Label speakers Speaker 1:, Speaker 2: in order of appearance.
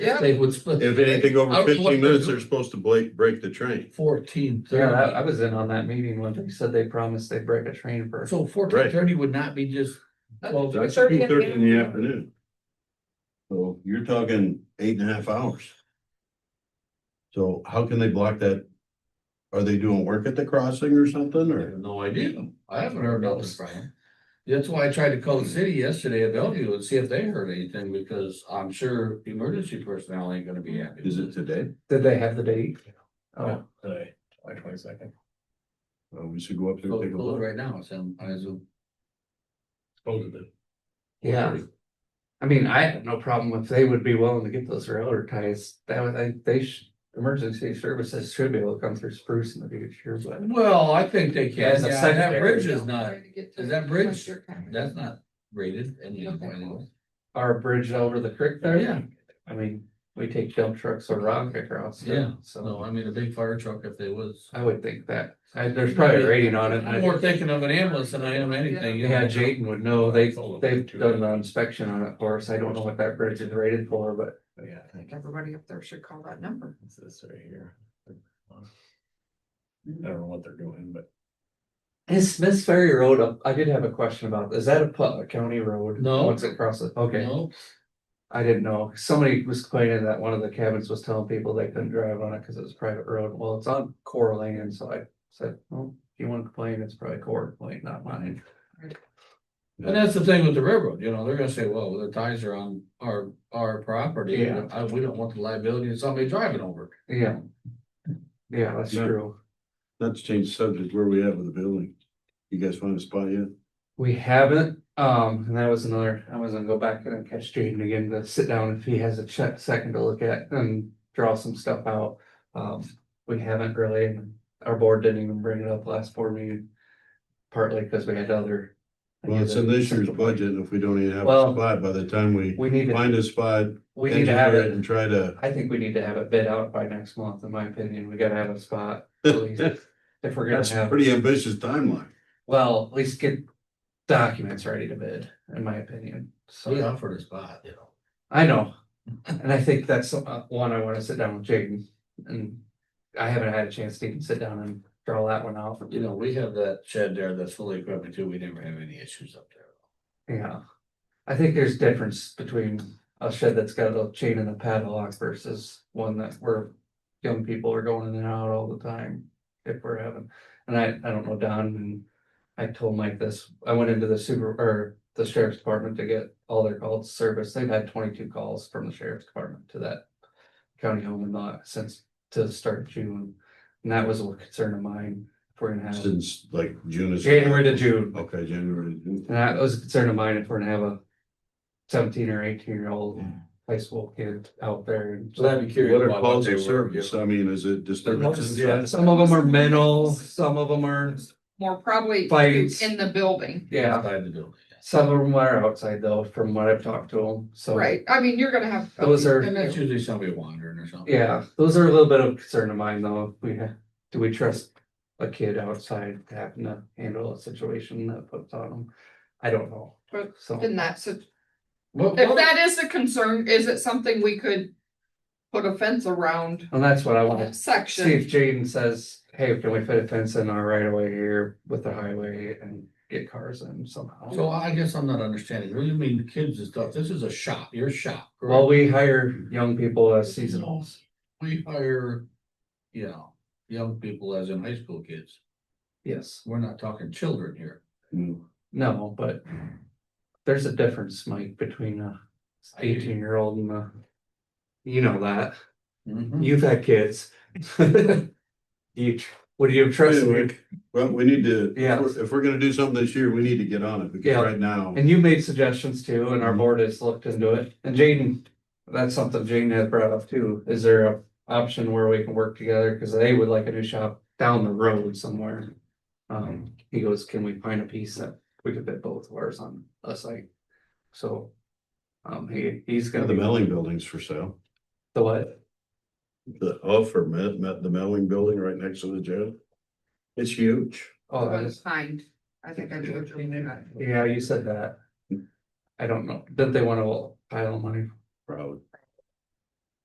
Speaker 1: Yeah.
Speaker 2: They would split.
Speaker 3: If anything over
Speaker 2: I was
Speaker 3: fifteen minutes, they're
Speaker 2: wondering-
Speaker 3: supposed to break, break the train.
Speaker 2: Fourteen
Speaker 4: Yeah, I, I
Speaker 2: thirty,
Speaker 4: was in on that meeting when they said they promised they'd break a train for.
Speaker 2: so fourteen thirty would not be just. Well,
Speaker 3: That's
Speaker 5: Thirty
Speaker 3: two
Speaker 5: in the
Speaker 3: thirty in the afternoon. So you're talking eight and a half hours. So how can they block that? Are they doing work at the crossing or something,
Speaker 2: I
Speaker 3: or?
Speaker 2: have no idea, I haven't heard nothing from them. That's why I tried to call the city yesterday at Bellevue and see if they heard anything, because I'm sure emergency personnel ain't gonna be happy.
Speaker 3: Is it today?
Speaker 4: Did they have the date?
Speaker 2: Yeah.
Speaker 4: Oh,
Speaker 1: Today, July twenty second.
Speaker 3: Uh, we should go up there
Speaker 2: Well,
Speaker 3: and take a
Speaker 2: well,
Speaker 3: look.
Speaker 2: Right now, it's on, on Zoom.
Speaker 4: yeah. I mean, I have no problem if they would be willing to get those railroad ties. That would, I, they should, emergency services should be able to come through Spruce in the future, but.
Speaker 2: Well, I think they can,
Speaker 4: As a
Speaker 2: yeah, that
Speaker 4: secondary.
Speaker 2: bridge is not,
Speaker 5: Is
Speaker 2: is that bridge, that's not rated anymore.
Speaker 4: Our bridge over the creek there.
Speaker 2: Yeah.
Speaker 4: I mean, we take dump trucks or rock across. it,
Speaker 2: Yeah, So
Speaker 4: So
Speaker 2: I mean, a big fire truck if they was.
Speaker 4: I would think that, I, there's probably a rating on it.
Speaker 2: I'm
Speaker 4: I-
Speaker 2: more thinking of an ambulance than I am anything. you
Speaker 4: Yeah,
Speaker 2: know.
Speaker 4: Jaden would know. They, they've done an inspection on it for us. I don't know what that bridge is rated for, but
Speaker 1: Yeah, I think
Speaker 5: Everybody up there should call that number.
Speaker 1: it's this right here. I don't know what they're doing, but
Speaker 4: Is Smith Ferry Road, up- I did have a question about, is that a Putnam County road?
Speaker 2: No.
Speaker 4: Once it crosses, okay,
Speaker 2: No,
Speaker 4: I didn't know, somebody was complaining that one of the cabins was telling people they couldn't drive on it because it was a private road, well, it's on core land, so I said, well, if you wanna complain, it's probably core lane, not mine.
Speaker 2: and that's the thing with the railroad, you know, they're gonna say, well, the ties are on our, our property,
Speaker 4: Yeah.
Speaker 2: I, we don't want the liability of somebody driving over. it.
Speaker 4: Yeah. Yeah, that's
Speaker 3: Yeah.
Speaker 4: true,
Speaker 3: Not to change the subject, where we at with the building? You guys find a spot yet?
Speaker 4: we haven't, um, and that was another, I was gonna go back and catch Jaden again to sit down if he has a check, second to look at and draw some stuff out. Um, we haven't really, and our board didn't even bring it up last board meeting. Partly because we had other.
Speaker 3: Well, it's in this year's budget, and if we don't even have a
Speaker 4: Well-
Speaker 3: spot by the time we
Speaker 4: We need to,
Speaker 3: find a spot,
Speaker 4: we need to have
Speaker 3: engineer it
Speaker 4: it,
Speaker 3: and try to.
Speaker 4: I think we need to have it bid out by next month, in my opinion, we gotta have a spot. at least, If we're gonna
Speaker 3: That's a
Speaker 4: have,
Speaker 3: pretty ambitious timeline.
Speaker 4: well, at least get documents ready to bid, in my opinion, so.
Speaker 2: We offered a spot, you know.
Speaker 4: I know, and I think that's uh, one I wanna sit down with Jaden, and I haven't had a chance to even sit down and draw that one out.
Speaker 2: You know, we have that shed there that's fully equipped too, we never have any issues up there.
Speaker 4: Yeah, I think there's difference between a shed that's got a chain and a padlock versus one that where young people are going in and out all the time. If we're having, and I, I don't know, Don, and I told Mike this, I went into the super, or the sheriff's department to get all their calls serviced. They've had twenty-two calls from the sheriff's department to that county home and lot since to start June. And that was a concern of mine, if we're gonna have
Speaker 3: Since like June is.
Speaker 4: January to June.
Speaker 3: Okay, January. to June.
Speaker 4: And that was a concern of mine if we're gonna have a seventeen or eighteen year old high school kid out there. and-
Speaker 2: So that'd be curious.
Speaker 3: What are
Speaker 2: about
Speaker 3: calls
Speaker 2: they
Speaker 3: of
Speaker 2: were,
Speaker 3: service?
Speaker 2: you know.
Speaker 3: I mean, is it disturbances?
Speaker 4: Yeah, some of them are mental, some of them are,
Speaker 5: More probably
Speaker 4: Fights.
Speaker 5: in the building,
Speaker 4: yeah,
Speaker 2: Outside the building.
Speaker 4: some of them are outside though, from what I've talked to them, so.
Speaker 5: right? I mean, you're gonna have.
Speaker 4: Those are-
Speaker 2: And that's usually somebody wandering or something.
Speaker 4: Yeah, those are a little bit of concern of mine though, we have, do we trust a kid outside to happen to handle a situation that puts on them? I don't know,
Speaker 5: But
Speaker 4: so.
Speaker 5: In that, so
Speaker 2: What,
Speaker 5: if
Speaker 2: what,
Speaker 5: that is a concern, is it something we could put a fence around
Speaker 4: And that's what I want
Speaker 5: that
Speaker 4: See
Speaker 5: section?
Speaker 4: if Jaden says, hey, can we fit a fence in our right of way here with the highway and get cars in
Speaker 2: so
Speaker 4: somehow?
Speaker 2: I guess I'm not understanding, what do you mean kids and stuff, this is a shop, your shop. correct?
Speaker 4: Well, we hire young people as seasonals.
Speaker 2: we hire, you know, young people as in high school kids.
Speaker 4: Yes,
Speaker 2: We're not talking children here.
Speaker 3: Mm.
Speaker 4: no, but there's a difference, Mike, between a
Speaker 2: I do.
Speaker 4: eighteen year old and a. You know that,
Speaker 2: Hmm.
Speaker 4: you've had kids. Do You, tr- what do you trust?
Speaker 3: Anyway.
Speaker 4: me?
Speaker 3: Well, we need to, if
Speaker 4: Yeah.
Speaker 3: we're- if we're gonna do something this year, we need to get on it because
Speaker 4: Yeah.
Speaker 3: right now.
Speaker 4: And you made suggestions too, and our board has looked into it, and Jaden, that's something Jaden has brought up too, is there a option where we can work together, cause they would like a new shop down the road somewhere. Um, he goes, can we find a piece that we could fit both of ours on a site? So, um, he, he's
Speaker 3: Yeah,
Speaker 4: gonna
Speaker 3: The
Speaker 4: be,
Speaker 3: mailing building's for sale.
Speaker 4: the what,
Speaker 3: The, oh, for Met, Met, the mailing building right next to the jail. It's huge.
Speaker 4: oh, that is,
Speaker 5: Behind, I think I do. remember that.
Speaker 4: yeah, you said that. I don't know, didn't they wanna pile of money
Speaker 3: Proud.